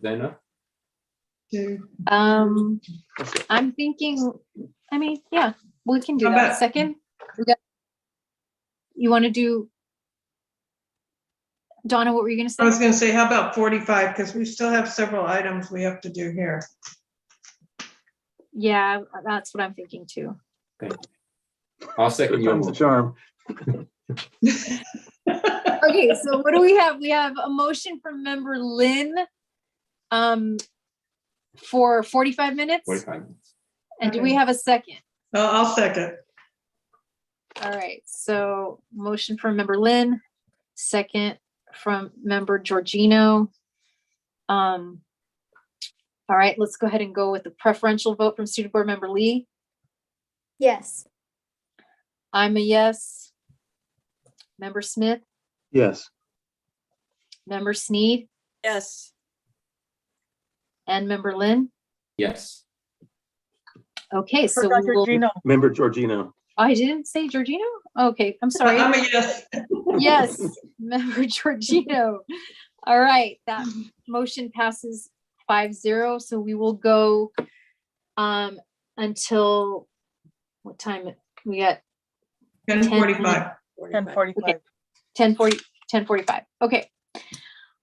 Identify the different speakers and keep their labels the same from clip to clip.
Speaker 1: Dana?
Speaker 2: Two.
Speaker 3: Um, I'm thinking, I mean, yeah, we can do
Speaker 2: How
Speaker 3: that.
Speaker 2: about-
Speaker 3: Second, we got- you want to do? Donna, what were you
Speaker 2: I
Speaker 3: gonna
Speaker 2: was
Speaker 3: say?
Speaker 2: gonna say, how about forty-five? Because we still have several items we have to do here.
Speaker 3: Yeah, that's what I'm thinking too.
Speaker 1: I'll second your
Speaker 4: Sometimes the
Speaker 1: motion.
Speaker 4: charm.
Speaker 3: Okay, so what do we have? We have a motion from member Lynn um, for forty-five minutes.
Speaker 1: Forty-five minutes.
Speaker 3: And do we have a second?
Speaker 2: I'll, I'll second.
Speaker 3: All right, so motion from member Lynn, second from member Georgino. Um. All right, let's go ahead and go with the preferential vote from student board member Lee.
Speaker 5: Yes.
Speaker 3: I'm a yes. Member Smith,
Speaker 4: Yes,
Speaker 3: member Sneed,
Speaker 6: Yes,
Speaker 3: and member Lynn.
Speaker 1: Yes.
Speaker 3: Okay, so
Speaker 6: Forgot
Speaker 3: we will,
Speaker 6: Georgino.
Speaker 4: member Georgino.
Speaker 3: I didn't say Georgino? Okay, I'm sorry.
Speaker 2: I'm a yes.
Speaker 3: Yes, member Georgino. All right, that motion passes five zero, so we will go um until what time we got
Speaker 2: And forty-five.
Speaker 6: ten forty-five.
Speaker 3: ten forty, ten forty-five. Okay.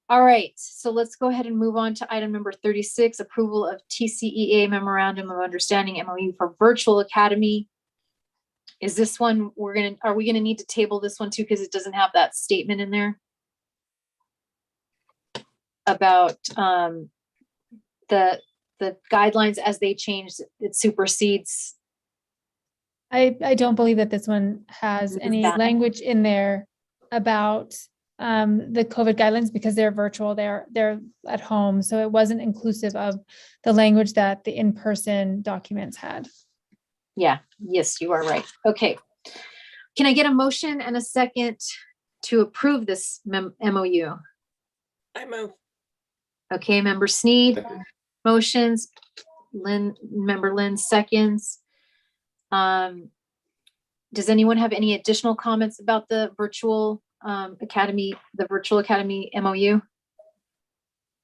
Speaker 3: All right, so let's go ahead and move on to item number thirty-six, approval of TCEA memorandum of understanding MOU for virtual academy. Is this one, we're gonna, are we gonna need to table this one too, because it doesn't have that statement in there? About um the the guidelines as they change, it supersedes.
Speaker 7: I, I don't believe that this one has
Speaker 3: What is
Speaker 7: any
Speaker 3: that?
Speaker 7: language in there about um, the COVID guidelines because they're virtual, they're, they're at home. So it wasn't inclusive of the language that the in-person documents had.
Speaker 3: Yeah, yes, you are right. Okay. Can I get a motion and a second to approve this mem- MOU?
Speaker 6: I move,
Speaker 3: Okay, member Sneed,
Speaker 1: Second.
Speaker 3: motions, Lynn, member Lynn seconds. Um, does anyone have any additional comments about the virtual um academy, the virtual academy MOU?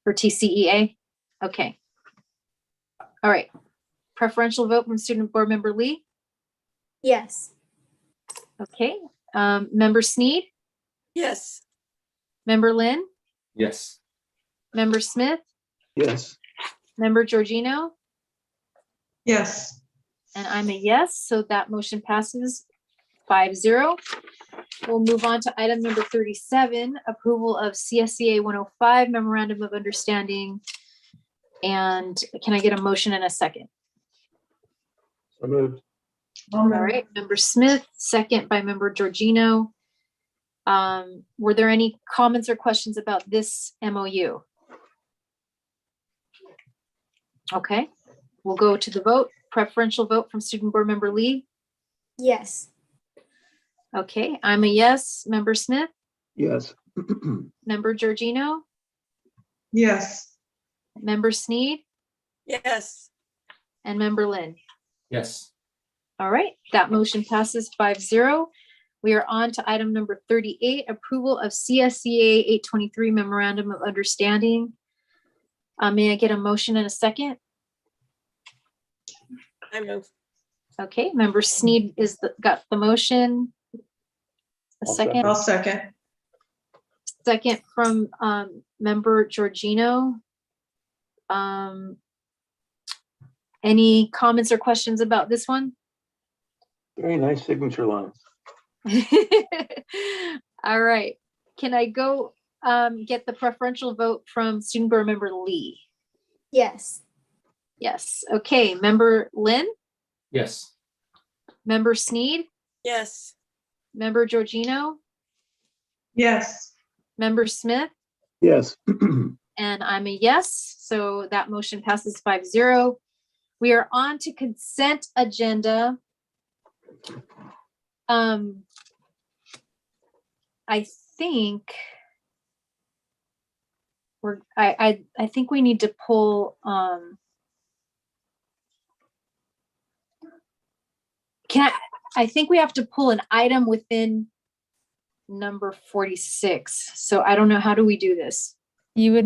Speaker 3: For TCEA? Okay. All right. Preferential vote from student board member Lee?
Speaker 5: Yes.
Speaker 3: Okay, um, member Sneed,
Speaker 6: yes,
Speaker 3: member Lynn,
Speaker 1: Yes.
Speaker 3: member Smith,
Speaker 4: Yes,
Speaker 3: member Georgino,
Speaker 2: Yes,
Speaker 3: and I'm a yes, so that motion passes five zero. We'll move on to item number thirty-seven, approval of CSCA one oh five memorandum of understanding. And can I get a motion in a second?
Speaker 4: so moved.
Speaker 3: All right, member Smith, second by member Georgino. Um, were there any comments or questions about this MOU? Okay, we'll go to the vote. Preferential vote from student board member Lee.
Speaker 5: Yes.
Speaker 3: Okay, I'm a yes. Member Smith,
Speaker 4: Yes.
Speaker 3: member Georgino,
Speaker 2: yes.
Speaker 3: member Sneed,
Speaker 6: yes,
Speaker 3: and member Lynn.
Speaker 1: Yes.
Speaker 3: All right, that motion passes five zero. We are on to item number thirty-eight, approval of CSCA eight twenty-three memorandum of understanding. Uh, may I get a motion and a second?
Speaker 6: I move,
Speaker 3: Okay, member Sneed is, the- got the motion. A
Speaker 4: I'll
Speaker 3: second,
Speaker 2: I'll second.
Speaker 3: second from, um, member Georgino. Um, any comments or questions about this one?
Speaker 4: Very nice signature lines.
Speaker 3: All right, can I go um get the preferential vote from student board member Lee?
Speaker 5: Yes.
Speaker 3: Yes, okay, member Lynn,
Speaker 1: Yes.
Speaker 3: member Sneed,
Speaker 6: yes,
Speaker 3: member Georgino,
Speaker 2: Yes,
Speaker 3: member Smith,
Speaker 4: Yes,
Speaker 3: and I'm a yes, so that motion passes five zero. We are on to consent agenda. Um I think we're, I, I, I think we need to pull, um, can, I I think we have to pull an item within number forty-six. So I don't know, how do we do this?
Speaker 7: You would